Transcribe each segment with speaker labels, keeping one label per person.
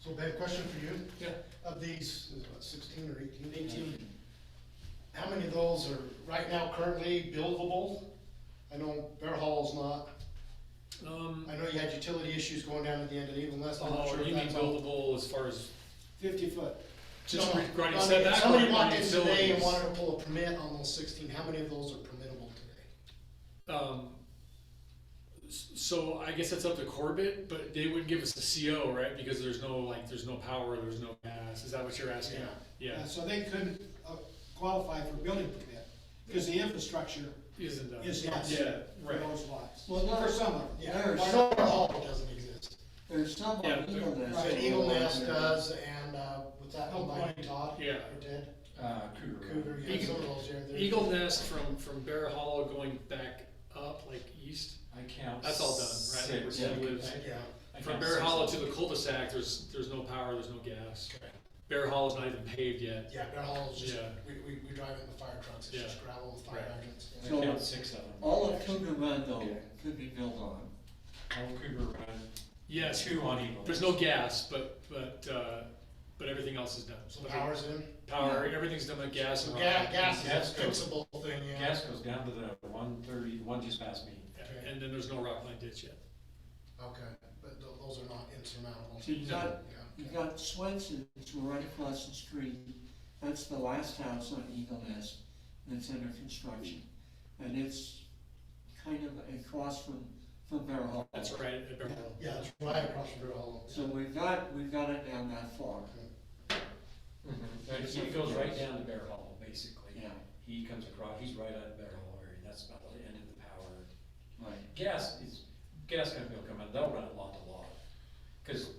Speaker 1: So I have a question for you.
Speaker 2: Yeah.
Speaker 1: Of these, there's about sixteen or eighteen?
Speaker 2: Eighteen.
Speaker 1: How many of those are right now currently buildable? I know Bear Hall's not.
Speaker 2: Um,
Speaker 1: I know you had utility issues going down at the end of the evening last time. I'm not
Speaker 2: oh,
Speaker 1: sure if
Speaker 2: you mean
Speaker 1: that's all-
Speaker 2: buildable as far as,
Speaker 3: Fifty foot.
Speaker 2: just
Speaker 1: No,
Speaker 2: regarding
Speaker 1: I mean,
Speaker 2: setback or
Speaker 1: Somebody walked in today and
Speaker 2: utilities?
Speaker 1: wanted to pull a permit on those sixteen, how many of those are permittable today?
Speaker 2: Um, s- so I guess that's up to Corbett, but they wouldn't give us a CO, right? Because there's no, like, there's no power, there's no gas, is that what you're asking? Yeah,
Speaker 3: Uh, So they couldn't uh, qualify for building permit, because the infrastructure
Speaker 2: isn't that?
Speaker 3: is not
Speaker 2: Yeah,
Speaker 3: there for
Speaker 2: right.
Speaker 3: those lots.
Speaker 4: Well, no.
Speaker 3: For some of them.
Speaker 1: Yeah,
Speaker 4: There's-
Speaker 1: I know Bear Hall doesn't exist.
Speaker 4: There's some on
Speaker 2: Yeah,
Speaker 4: Eagle Nest.
Speaker 1: Right, Eagle Nest does, and, uh, what's that,
Speaker 3: Oh,
Speaker 1: one by
Speaker 3: right.
Speaker 1: Todd?
Speaker 2: Yeah.
Speaker 1: Or Ted?
Speaker 5: Uh, Cougar.
Speaker 1: Cougar, yeah, some of those, yeah. they're-
Speaker 2: Eagle Nest from, from Bear Hollow going back up, like, east,
Speaker 5: I count.
Speaker 2: that's all done, right? Like,
Speaker 5: six.
Speaker 2: where
Speaker 5: I-
Speaker 2: Steve lives.
Speaker 5: I-
Speaker 1: Yeah,
Speaker 5: I
Speaker 2: From
Speaker 5: count
Speaker 2: Bear
Speaker 5: six.
Speaker 2: Hollow to the cul-de-sac, there's, there's no power, there's no gas.
Speaker 1: Okay.
Speaker 2: Bear Hollow's not even paved yet.
Speaker 1: yeah, Bear Hall is just,
Speaker 2: Yeah.
Speaker 1: we, we, we drive it in the fire trucks, it's
Speaker 2: Yeah.
Speaker 1: just gravel with fire
Speaker 2: Right.
Speaker 1: hydrants.
Speaker 5: I
Speaker 1: yeah.
Speaker 4: So-
Speaker 5: count six of them.
Speaker 4: All of
Speaker 5: actually.
Speaker 4: Cougar Run though
Speaker 5: Okay.
Speaker 4: could be built on.
Speaker 5: All of Cougar Run,
Speaker 2: Yes,
Speaker 5: two on Eagle.
Speaker 2: there's no gas, but, but, uh, but everything else is done.
Speaker 1: So power's in,
Speaker 2: Power, everything's done with gas
Speaker 1: so
Speaker 2: and.
Speaker 1: gas,
Speaker 2: rock.
Speaker 1: gas is
Speaker 5: Gas
Speaker 1: a
Speaker 5: goes-
Speaker 1: fixable thing, yeah.
Speaker 5: Gas goes down to the one thirty, one just past me.
Speaker 2: Yeah, And then there's no rockland ditch yet.
Speaker 1: Okay, but tho- those are not insurmountable.
Speaker 4: So you
Speaker 1: Yeah,
Speaker 4: got, you
Speaker 1: okay.
Speaker 4: got Swenson's right across the street. That's the last house on Eagle Nest that's under construction. And it's kind of across from, from Bear Hall.
Speaker 2: That's right, at Bear Hollow.
Speaker 1: Yeah, it's right across from Bear Hall.
Speaker 4: So we've got, we've got it down that far.
Speaker 5: But He goes right down to Bear Hollow, basically.
Speaker 4: Yeah,
Speaker 5: He comes across, he's right on Bear Hollow area, that's about the end of the power.
Speaker 4: right.
Speaker 5: Gas is, gas company will come in, they'll run it lot to lot. Cause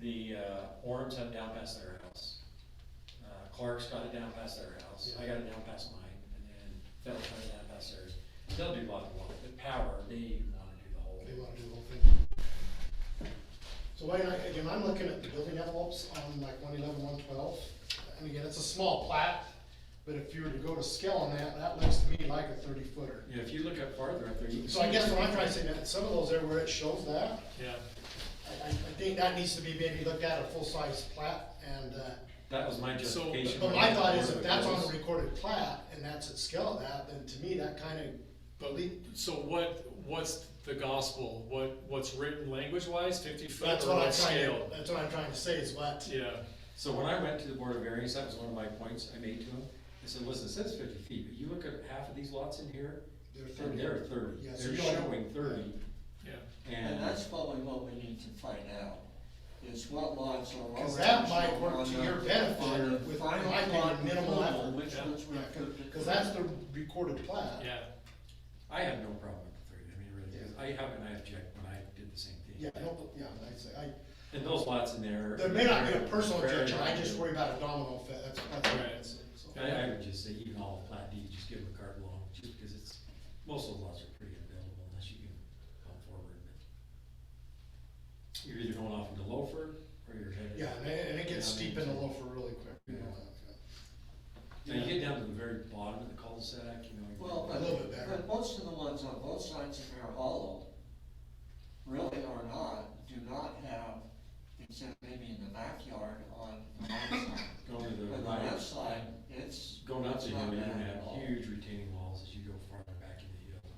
Speaker 5: the, uh, Orms have it down past their house. Uh, Clark's got it down past their house, I got it down past mine, and then Federal's got it down past theirs. They'll do lot to lot, but power, they wanna do the whole.
Speaker 1: They wanna do the whole thing. So why not, again, I'm looking at the building envelopes on like one eleven, one twelve, and again, it's a small plat, but if you were to go to scale on that, that looks to me like a thirty footer.
Speaker 5: Yeah, if you look up farther up there, you can.
Speaker 1: So I guess
Speaker 5: see-
Speaker 1: what I'm trying to say, that some of those there where it shows that,
Speaker 2: Yeah,
Speaker 1: I, I, I think that needs to be maybe looked at a full-size plat, and, uh,
Speaker 5: That was my
Speaker 2: So-
Speaker 5: justification.
Speaker 1: but my
Speaker 5: when I
Speaker 1: thought is
Speaker 5: ordered
Speaker 1: if that's on
Speaker 5: those.
Speaker 1: a recorded plat, and that's at scale of that, then to me, that kinda,
Speaker 2: but, so what, what's the gospel? What, what's written language wise, fifty foot
Speaker 1: that's
Speaker 2: or
Speaker 1: what I'm
Speaker 2: what
Speaker 1: trying, to-
Speaker 2: scale?
Speaker 1: that's what I'm trying to say is what.
Speaker 2: Yeah,
Speaker 5: So when I went to the Board of Variance, that was one of my points I made to them. I said, listen, it says fifty feet, but you look at half of these lots in here,
Speaker 1: They're
Speaker 5: and they're thirty.
Speaker 1: Yeah, so
Speaker 5: They're
Speaker 1: you don't-
Speaker 5: showing thirty,
Speaker 2: yeah.
Speaker 4: And
Speaker 5: and
Speaker 4: that's probably what we need to find out, is what lots are already.
Speaker 1: Cause that might work to
Speaker 4: on
Speaker 1: your
Speaker 4: the-
Speaker 1: benefit
Speaker 4: on the
Speaker 1: with, in
Speaker 4: final
Speaker 1: my opinion,
Speaker 4: plot
Speaker 1: minimal
Speaker 4: approval,
Speaker 1: effort.
Speaker 4: Which ones we
Speaker 1: Yeah,
Speaker 4: could.
Speaker 1: Cause that's the recorded plat.
Speaker 2: Yeah,
Speaker 5: I have no problem with the thirty, I mean, it really, is. I haven't, I object when I did the same thing.
Speaker 1: Yeah, I don't, yeah, I say, I,
Speaker 5: And those lots in there.
Speaker 1: there may not be a personal
Speaker 5: Very-
Speaker 1: objection, I just worry about a domino effect, that's, that's what I'm
Speaker 2: Right.
Speaker 1: saying, so.
Speaker 5: I, I would just say even all the plat deeds, just give them a card along, just because it's, most of the lots are pretty available unless you can come forward. but You're either going off into Loafer or you're headed.
Speaker 1: Yeah, and it, and it gets
Speaker 5: Yeah, I mean,
Speaker 1: steep in the loafer really quick. you know,
Speaker 5: Now, you get down to the very bottom of the cul-de-sac, you know. you-
Speaker 4: Well,
Speaker 1: A little bit
Speaker 4: but,
Speaker 1: better.
Speaker 4: but most of the ones on both sides of Bear Hollow really are not, do not have, except maybe in the backyard on the right side.
Speaker 5: Going to the
Speaker 4: But on the
Speaker 5: right.
Speaker 4: left side, it's.
Speaker 5: Going up
Speaker 4: it's
Speaker 5: the hill,
Speaker 4: not
Speaker 5: you're
Speaker 4: bad
Speaker 5: gonna
Speaker 4: at
Speaker 5: have
Speaker 4: all.
Speaker 5: huge retaining walls as you go farther back into the hill.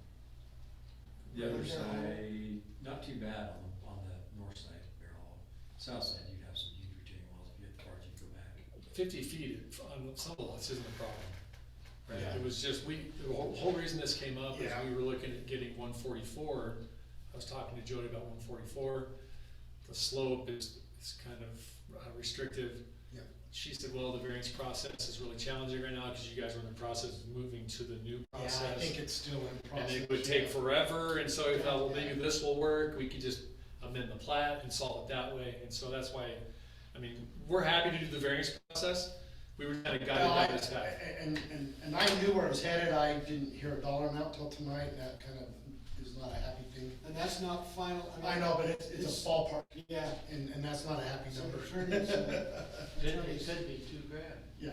Speaker 5: The
Speaker 1: Right
Speaker 5: other
Speaker 1: there.
Speaker 5: side, not too bad on, the- on the north side of Bear Hollow. South side, you'd have some huge retaining walls if you had cars, you'd go back.
Speaker 2: fifty feet on some lots isn't a problem.
Speaker 1: Yeah.
Speaker 2: Right, it was just, we, the whole, whole reason this came up is
Speaker 1: Yeah.
Speaker 2: we were looking at getting one forty-four. I was talking to Jody about one forty-four. The slope is, is kind of uh, restrictive.
Speaker 1: Yeah.
Speaker 2: She said, well, the variance process is really challenging right now because you guys are in the process of moving to the new
Speaker 1: Yeah,
Speaker 2: process.
Speaker 1: I think it's still in
Speaker 2: And
Speaker 1: process.
Speaker 2: it would take forever, and so we thought, well, maybe this will work, we could just amend the plat and solve it that way, and so that's why, I mean, we're happy to do the variance process, we were kinda guided
Speaker 1: Well, I-
Speaker 2: by this guy.
Speaker 1: And, and, and I knew where I was headed, I didn't hear a dollar amount till tonight, and that kind of is not a happy thing.
Speaker 3: And that's not final. mean,
Speaker 1: I know, but it's, it's a ballpark,
Speaker 3: Yeah.
Speaker 1: and, and that's not a happy
Speaker 3: So
Speaker 1: number.
Speaker 3: attorneys, uh, attorneys
Speaker 4: could be two grand.
Speaker 1: Yeah.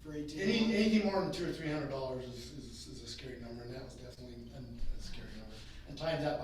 Speaker 3: for eighteen.
Speaker 1: Any,
Speaker 3: months.
Speaker 1: anything more than two or three hundred dollars is, is, is a scary number, and that was definitely an- a scary number. And times that by